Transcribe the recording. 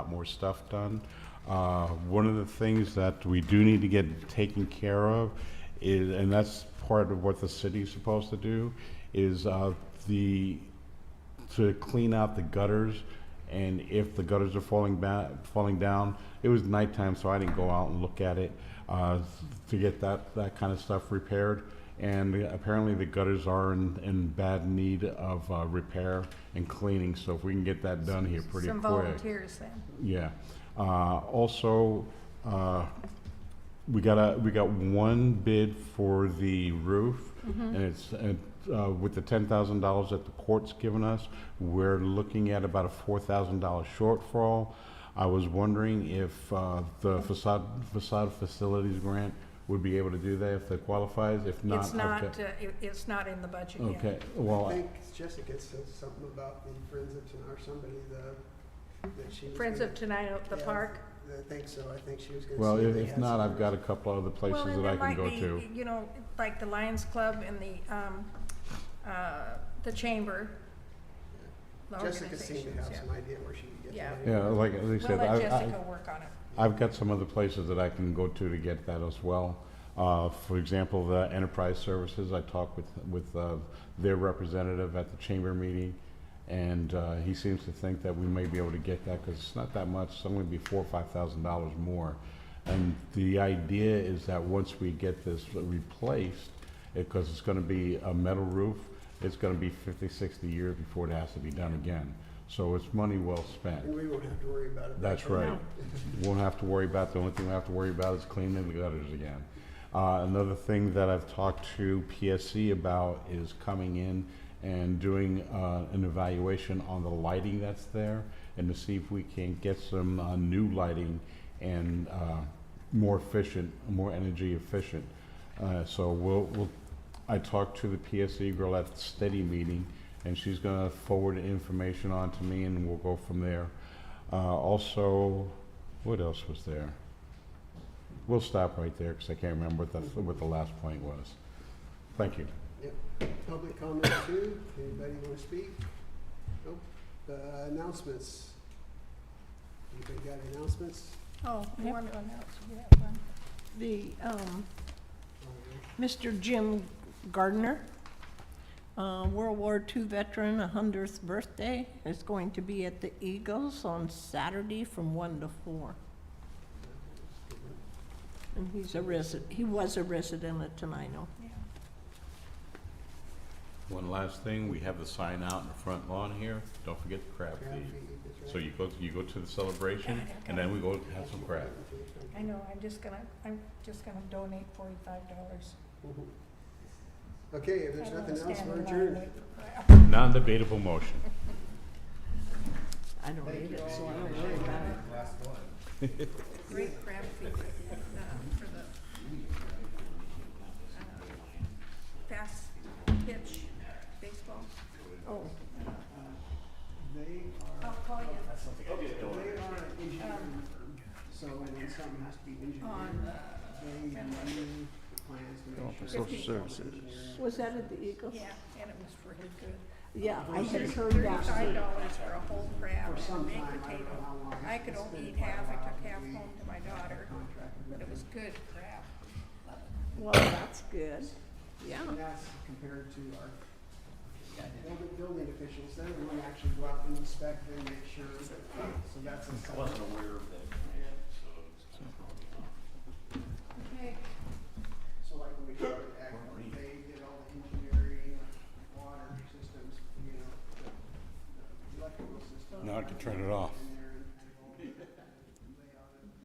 more stuff done. Uh, One of the things that we do need to get taken care of is, and that's part of what the city's supposed to do, is uh, the, to clean out the gutters. And if the gutters are falling ba, falling down, it was nighttime, so I didn't go out and look at it, uh, to get that, that kind of stuff repaired. And apparently the gutters are in, in bad need of, uh, repair and cleaning, so if we can get that done here pretty quick. Some volunteers then. Yeah. Uh, also, uh, we got a, we got one bid for the roof. Mm-hmm. And it's, and, uh, with the ten thousand dollars that the court's given us, we're looking at about a four thousand dollar shortfall. I was wondering if, uh, the facade, facade facilities grant would be able to do that if that qualifies, if not. It's I've not, got- uh, it- it's not in the budget yet. Okay, I well, think Jessica said something about the Friends of, Ten- or somebody, the, that she was. Friends gonna- of Tonight at the Yeah, Park. I think so, I think she was gonna. well, see if, they if had not, some- I've got a couple other places Well, and that I there can might go be, to. You know, like the Lions Club and the, um, uh, the Chamber. the Jessica seemed to organizations, have yeah. some idea where she could get Yeah. the money. Yeah, like, they We'll said, I, let I, Jessica work on it. I've got some other places that I can go to to get that as well. Uh, For example, the enterprise services, I talked with, with uh, their representative at the chamber meeting, and uh, he seems to think that we may be able to get that, because it's not that much, it's only be four or five thousand dollars more. And the idea is that once we get this replaced, because it's gonna be a metal roof, it's gonna be 50, 60 years before it has to be done again. So it's money well spent. And we won't have to worry about it. That's right. Won't have to worry about, the only thing we have to worry about is cleaning the gutters again. Uh, another thing that I've talked to PSC about is coming in and doing, uh, an evaluation on the lighting that's there and to see if we can get some, uh, new lighting and, uh, more efficient, more energy efficient. Uh, so we'll, we'll, I talked to the PSC girl at the steady meeting and she's gonna forward the information on to me and we'll go from there. Uh, also, what else was there? We'll stop right there because I can't remember what the, what the last point was. Thank you. Public comment too, anybody wanna speak? Nope, uh, announcements. Anybody got announcements? Oh, you Yep. want to announce, you have one? The, um, Oh, Mr. Jim Gardner, uh, World War II veteran, a hundredth birthday, is going to be at the Eagles on Saturday from one to four. And he's a resident, he was a resident of Tenino. One last thing, we have the sign out in the front lawn here. Don't forget the crab Crab feed. feed, that's So right. you go, you go to the celebration and then we go have some crab. I know, I'm just gonna, I'm just gonna donate forty-five dollars. Mhm. Okay, if there's nothing else, we're adjourned. Non-debatable motion. I don't need it, so I don't know. Great crab feed, uh, for the, uh, fast pitch baseball. Oh, They are, I'll call you they are engineering firm, so when something has to be engineered, on, uh, they do plans to make sure. social services. was that at the Eagles? yeah, and it was really good. Yeah, I had heard that. Thirty-five dollars for a whole crab For some and time, baked I don't know how potato. long. I could It's only been eat quite a half, I while took since half we home to my daughter, contracted but with it was them. good crab. Well, that's good, yeah. And that's compared to our building, building officials, they're the one that actually go out and inspect and make sure, that- so that's. I wasn't aware of that. Okay. So like when we go to Ag, they did all the engineering, water systems, you know, the- the electrical system. Now I can turn it off. And